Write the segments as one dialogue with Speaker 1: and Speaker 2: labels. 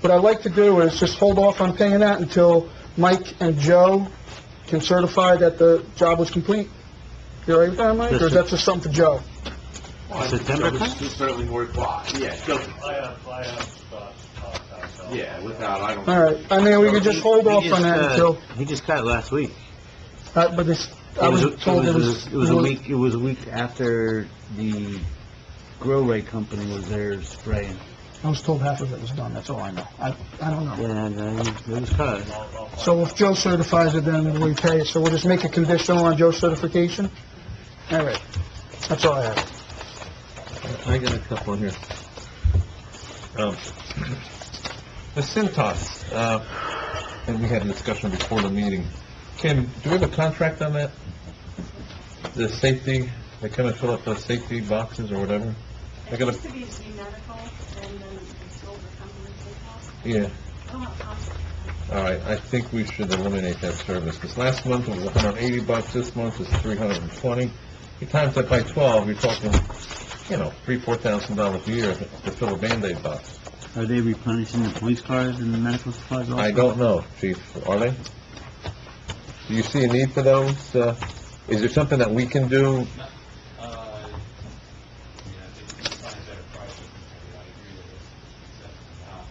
Speaker 1: What I'd like to do is just hold off on paying that until Mike and Joe can certify that the job was complete. You all right with that, Mike? Or is that just something for Joe?
Speaker 2: September tenth?
Speaker 3: It's certainly worthwhile, yeah, so-
Speaker 4: I have, I have thoughts about that, so.
Speaker 3: yeah, without, I don't...
Speaker 1: All right, I mean, we could just hold off on that until,
Speaker 2: uh, He just got it last week.
Speaker 1: uh, but this, I
Speaker 2: It was,
Speaker 1: was
Speaker 2: it
Speaker 1: told it
Speaker 2: was,
Speaker 1: was...
Speaker 2: it was a week, it was a week after the grow ray company was there spraying.
Speaker 1: I was told half of it was done, that's all I know. I, I don't know.
Speaker 2: And, uh, it was cut.
Speaker 4: I'll- I'll find
Speaker 1: So if Joe certifies it, then we pay it, so we'll just make it conditional on Joe's certification? All right, that's all I have.
Speaker 5: I got a couple in here. Um, The Cintas, uh, and we had a discussion before the meeting. Kim, do we have a contract on that? The safety, they come and fill up the safety boxes or whatever? I
Speaker 6: It
Speaker 5: gotta-
Speaker 6: used to be Z Medical, and then it sold the company to
Speaker 5: Yeah,
Speaker 6: Hillhouse. I
Speaker 7: Oh,
Speaker 6: don't have contact.
Speaker 5: all right, I think we should eliminate that service, because last month it was hundred and eighty bucks, this month it's three hundred and twenty. You times that by twelve, you're talking, you know, three, four thousand dollars a year to fill a Band-Aid box.
Speaker 2: Are they replenishing the police cars and the medical supplies also?
Speaker 5: I don't know, chief, are they? Do you see a need for those? Uh, Is there something that we can do?
Speaker 4: Uh, yeah, if you can find a better price, I agree with this, except, uh,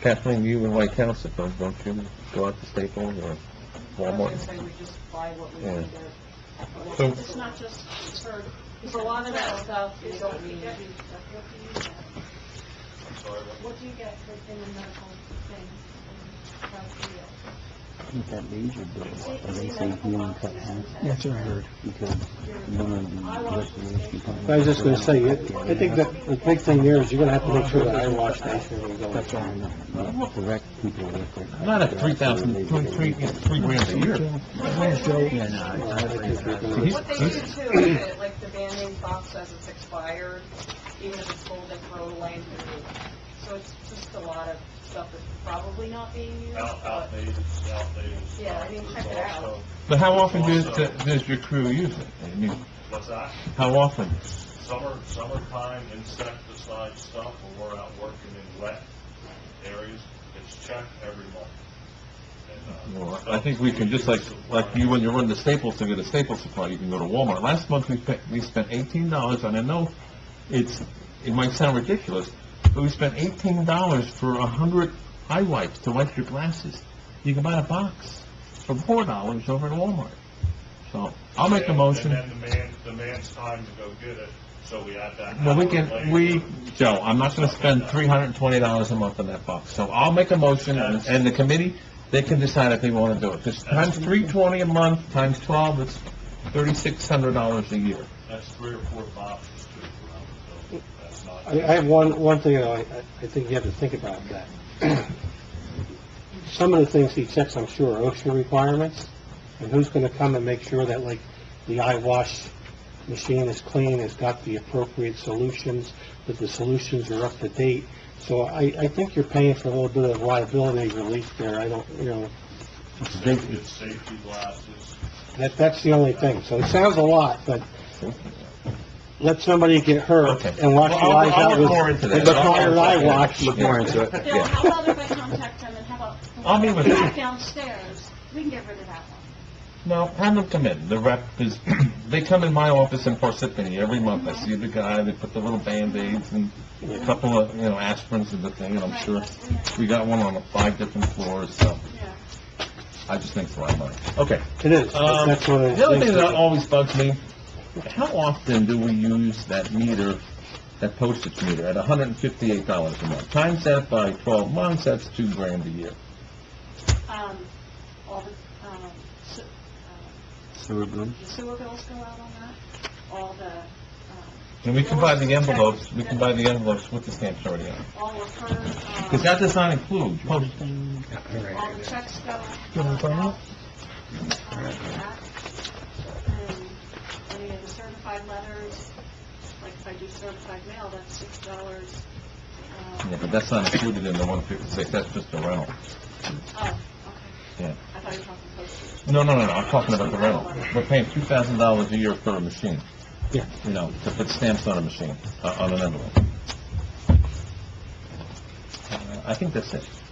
Speaker 5: Kathleen, you and White Council, don't don't you go out to Staples or Walmart?
Speaker 6: say we just buy what we
Speaker 5: Yeah.
Speaker 6: need
Speaker 5: So-
Speaker 6: there. It's not just, it's her, it's a lot of that stuff, is what you get. What do you get?
Speaker 4: I'm sorry, what-
Speaker 6: What do you get for- in the medical thing? um, about the, uh,
Speaker 2: With that major bill,
Speaker 6: Z-
Speaker 2: are they
Speaker 6: Z
Speaker 2: saying if you
Speaker 6: Medical
Speaker 2: want to cut
Speaker 6: boxes
Speaker 2: half,
Speaker 6: and that.
Speaker 1: That's all right.
Speaker 2: because one of the restoration companies...
Speaker 8: I was just gonna say, it- I think that the big thing here is you're gonna have to make sure that I wash station is going.
Speaker 2: That's all I know. Correct people with it.
Speaker 5: Not at three thousand, three, three, you know, three grand a year.
Speaker 2: Yeah, no, I- I think that-
Speaker 7: What they do too, is that, like, the Band-Aid box says it's expired, even if it's sold at throw away and put it away. So it's just a lot of stuff that's probably not being used,
Speaker 4: out-
Speaker 7: but
Speaker 4: outdated, outdated.
Speaker 7: Yeah, I mean,
Speaker 4: stuff
Speaker 7: check it
Speaker 4: is
Speaker 7: out.
Speaker 4: also-
Speaker 5: But how often does, does your crew use it? I mean,
Speaker 4: What's that?
Speaker 5: how often?
Speaker 4: Summer, summertime insecticide stuff, when we're out working in wet areas, it's checked every month. And, uh,
Speaker 5: Well, I think we can, just like, like you, when you run to Staples to get a Staples supply, you can go to Walmart. Last month, we spent, we spent eighteen dollars, and I know it's, it might sound ridiculous, but we spent eighteen dollars for a hundred eye wipes to wipe your glasses. You can buy a box for four dollars over at Walmart. So, I'll make a
Speaker 4: and-
Speaker 5: motion.
Speaker 4: And then the man, the man's time to go get it, so we add that.
Speaker 5: Well, we
Speaker 4: hour
Speaker 5: can,
Speaker 4: later.
Speaker 5: we, Joe, I'm not gonna spend three hundred and twenty dollars a month on that box, so I'll make a motion, and and the committee, they can decide if they wanna do it. Just times three twenty a month, times twelve, it's thirty-six hundred dollars a year.
Speaker 4: That's three or four boxes too, around the building. That's not.
Speaker 8: I, I have one, one thing that I, I think you have to think about that. Some of the things he checks, I'm sure, are OSHA requirements, and who's gonna come and make sure that, like, the eye wash machine is clean, has got the appropriate solutions, that the solutions are up to date. So I, I think you're paying for a little bit of liability relief there, I don't, you know,
Speaker 4: It's safety glasses.
Speaker 8: That, that's the only thing. So it sounds a lot, but let somebody get hurt
Speaker 5: Okay.
Speaker 8: and wash
Speaker 5: Well,
Speaker 8: your
Speaker 5: I'll-
Speaker 8: eyes
Speaker 5: I'll
Speaker 8: out
Speaker 5: look
Speaker 8: with...
Speaker 5: more into that.
Speaker 8: with the fire
Speaker 5: I'll-
Speaker 8: eye wash.
Speaker 5: Look more into it,
Speaker 6: Bill,
Speaker 5: yeah.
Speaker 6: how about if I contact them and how about...
Speaker 5: I'll meet with them.
Speaker 6: Back downstairs, we can get rid of that one.
Speaker 5: No, have them come in, the rep is, they come in my office in Parsippany every month, I see the guy, they put the little Band-Aids and a couple of, you know, aspirins in the thing, and I'm
Speaker 6: Right,
Speaker 5: sure,
Speaker 6: that's- yeah.
Speaker 5: we got one on five different floors, so
Speaker 6: Yeah.
Speaker 5: I just think it's a lot of money. Okay.
Speaker 8: It is.
Speaker 5: Um,
Speaker 8: That's one of
Speaker 5: The
Speaker 8: the
Speaker 5: other thing
Speaker 8: things.
Speaker 5: that
Speaker 8: that-
Speaker 5: always bugs me, how often do we use that meter, that postage meter, at hundred and fifty-eight dollars a month? Times that by twelve months, that's two grand a year.
Speaker 6: Um, all the, um, se- um,
Speaker 2: Sewer bill.
Speaker 6: the sewer bills go out on that, all the, um,
Speaker 5: And we can buy the envelopes, we can buy the envelopes with the stamps already on.
Speaker 6: all of her, um,
Speaker 5: Because that does not include postage.
Speaker 6: all the checks go out.
Speaker 1: You wanna talk about
Speaker 6: Um, that. And Any of the certified letters, like if I do certified mail, that's six dollars. uh,
Speaker 5: Yeah, but that's not included in the one fifty-six, that's just the rental.
Speaker 6: Oh, okay.
Speaker 5: Yeah.
Speaker 6: I thought you were talking postage.
Speaker 5: No, no, no, no, I'm talking about the rental. We're paying two thousand dollars a year for a machine.
Speaker 8: Yeah.
Speaker 5: You know, to put stamps on a machine, uh, on an envelope. I think that's it.